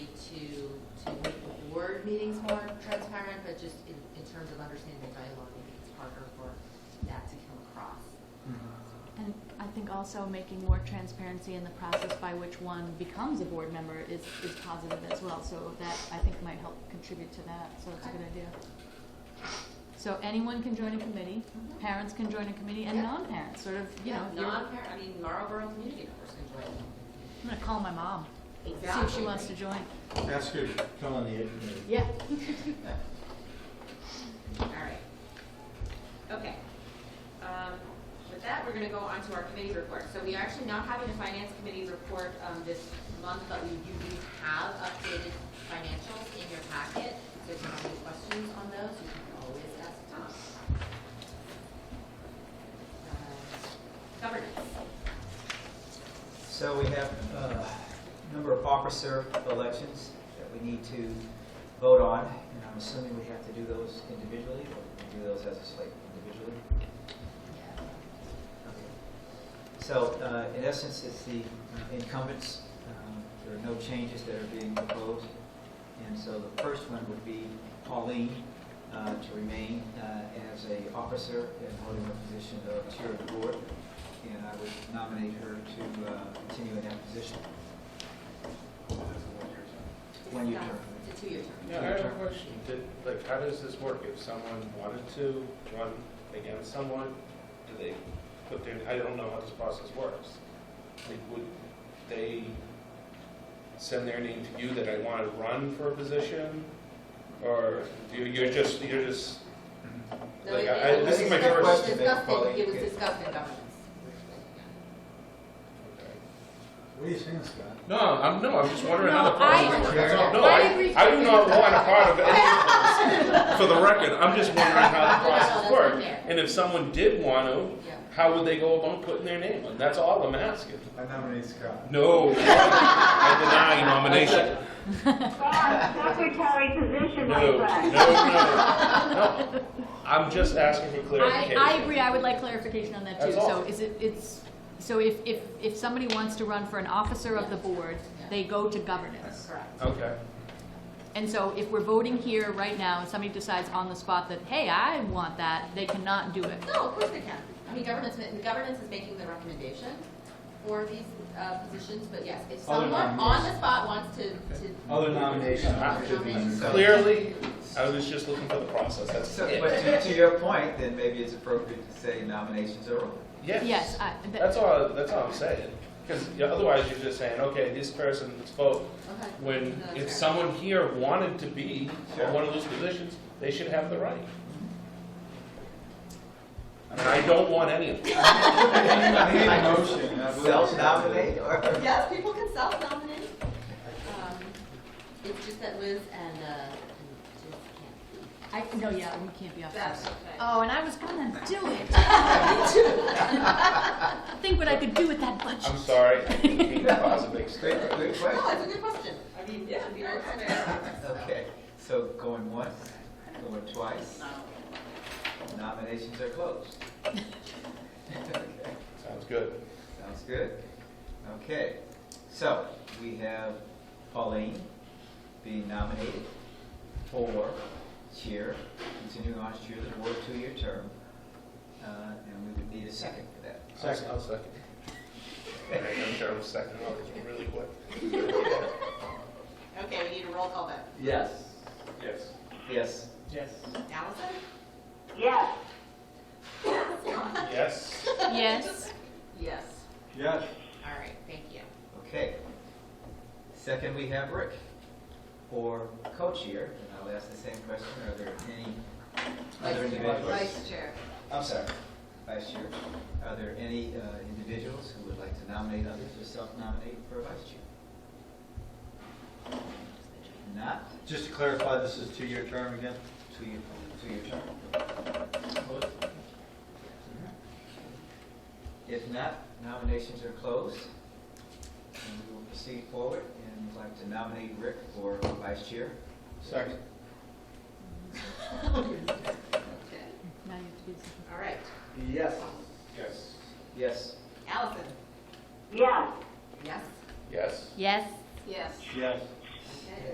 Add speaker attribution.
Speaker 1: board meetings more transparent, but just in, in terms of understanding the dialogue, I think it's harder for that to come across.
Speaker 2: Mm-hmm.
Speaker 3: And I think also making more transparency in the process by which one becomes a board member is, is positive as well. So that, I think, might help contribute to that, so it's a good idea. So anyone can join a committee,
Speaker 1: Mhm.
Speaker 3: parents can join a committee, and
Speaker 1: Yeah.
Speaker 3: non-parents, sort of, you know.
Speaker 1: Yeah,
Speaker 3: if you're-
Speaker 1: non-parent, I mean, Marlboro community members can join.
Speaker 3: I'm gonna call my mom, see if she
Speaker 1: Exactly.
Speaker 3: wants to join.
Speaker 2: Ask her, to come on the ed committee.
Speaker 3: Yeah.
Speaker 1: All right. Okay. Um, With that, we're going to go on to our committee report. So we are actually not having a finance committee report um, this month, but we do have updated financials in your packet. So if you have any questions on those, you can always ask Tom. Uh, Governance.
Speaker 4: So we have uh, a number of officer elections that we need to vote on, and I'm assuming we have to do those individually, or we do those as a slate individually? Okay. So uh, in essence, it's the uh, incumbents, Um, there are no changes that are being proposed. And so the first one would be Pauline uh, to remain uh, as a officer and holding the position of chair of the board. And I would nominate her to uh, continue in that position. One year term.
Speaker 1: It's a two-year term.
Speaker 5: Yeah, I have a question. Did, like, how does this work? If someone wanted to run against someone, do they put their, I don't know how this process works. Like, would they send their name to you that I want to run for a position? Or you- you're just, you're just,
Speaker 1: No,
Speaker 5: Like,
Speaker 1: it-
Speaker 5: I-
Speaker 1: it
Speaker 5: this is my
Speaker 1: was discussed-
Speaker 4: first-
Speaker 1: discussed in- It was
Speaker 4: Yeah.
Speaker 1: discussed in governance.
Speaker 5: okay.
Speaker 2: What do you think, Scott?
Speaker 5: no, I'm, no, I'm just wondering how the
Speaker 3: No,
Speaker 5: process
Speaker 3: I-
Speaker 5: works.
Speaker 2: I-
Speaker 5: That's all. No,
Speaker 3: I
Speaker 5: I,
Speaker 3: agree.
Speaker 5: I do not want a part of it. For the record, I'm just wondering how the
Speaker 1: No, no, that's not
Speaker 5: process works.
Speaker 1: fair.
Speaker 5: And if someone did want to,
Speaker 1: Yeah.
Speaker 5: How would they go about putting their name on? That's all I'm asking.
Speaker 2: I nominate Scott.
Speaker 5: No, I deny nomination.
Speaker 6: God, secretary position
Speaker 5: No, no,
Speaker 6: like that.
Speaker 5: no, no. I'm just asking for
Speaker 3: I,
Speaker 5: clarification.
Speaker 3: I agree, I would like clarification on that too.
Speaker 5: That's
Speaker 3: So
Speaker 5: all.
Speaker 3: is it, it's, so if, if, if somebody wants to run for an officer of the board,
Speaker 1: Yeah.
Speaker 3: they go to governance.
Speaker 1: Correct.
Speaker 5: Okay.
Speaker 3: And so if we're voting here right now and somebody decides on the spot that, hey, I want that, they cannot do it.
Speaker 1: No, of course they can. I mean, governance, governance is making the recommendation for these uh, positions, but yes, if
Speaker 2: Other
Speaker 1: someone on the spot wants to, to.
Speaker 2: Other nominations should be.
Speaker 5: Clearly, I was just looking for the process. That's
Speaker 4: So,
Speaker 5: it.
Speaker 4: but to- to your point, then maybe it's appropriate to say nominations are open.
Speaker 3: Yes, I,
Speaker 5: That's
Speaker 3: that,
Speaker 5: all, that's all I'm saying. Because otherwise you're just saying, okay, this person spoke.
Speaker 1: Okay.
Speaker 5: When
Speaker 1: No,
Speaker 5: if
Speaker 1: that's fair.
Speaker 5: someone here wanted to be
Speaker 4: Sure.
Speaker 5: on one of those positions, they should have the right. And I don't want any of them.
Speaker 2: I need a motion. I believe-
Speaker 4: Self-nominate or?
Speaker 1: Yes, people can self-nominate. Um, It's just that Liz and, uh, and Jess can't. Uh,
Speaker 3: I, no, yeah, we can't be officers.
Speaker 1: okay.
Speaker 3: Oh, and I was gonna do it. Think what I could do with that budget.
Speaker 5: I'm sorry. I didn't mean to cause a big stir.
Speaker 4: Great, great
Speaker 1: No,
Speaker 4: question.
Speaker 1: it's a good question. I mean, yeah. it'd be very fair.
Speaker 4: Okay, so going once, going twice, nominations are closed. Okay,
Speaker 5: Sounds good.
Speaker 4: Sounds good. Okay, so we have Pauline being nominated for chair, continuing on as chair of the board, two-year term. Uh, And we would need a second for that.
Speaker 5: Second. I'll second. All right, I'm sure I'm second. Oh, it's really quick.
Speaker 1: Okay, we need a roll call vote.
Speaker 4: Yes.
Speaker 5: Yes.
Speaker 4: Yes.
Speaker 1: Allison?
Speaker 6: Yes,
Speaker 5: Yes.
Speaker 3: Yes,
Speaker 1: Yes.
Speaker 2: Yes.
Speaker 1: All right, thank you.
Speaker 4: Okay. Second, we have Rick for co-chair, and I'll ask the same question, are there any other individuals?
Speaker 1: chair.
Speaker 4: I'm sorry, vice chair. Are there any uh, individuals who would like to nominate others or self-nominate for vice chair? Not
Speaker 2: Just to clarify, this is two-year term again?
Speaker 4: two-year, two-year term. If not, nominations are closed, and we will proceed forward, and would like to nominate Rick for vice chair.
Speaker 2: Second.
Speaker 1: Okay.
Speaker 3: now you have to do something.
Speaker 1: All right.
Speaker 2: Yes.
Speaker 5: Yes.
Speaker 4: Yes.
Speaker 1: Allison?
Speaker 6: yes,
Speaker 1: Yes.
Speaker 5: Yes.
Speaker 3: Yes,
Speaker 1: Yes.
Speaker 2: Yes.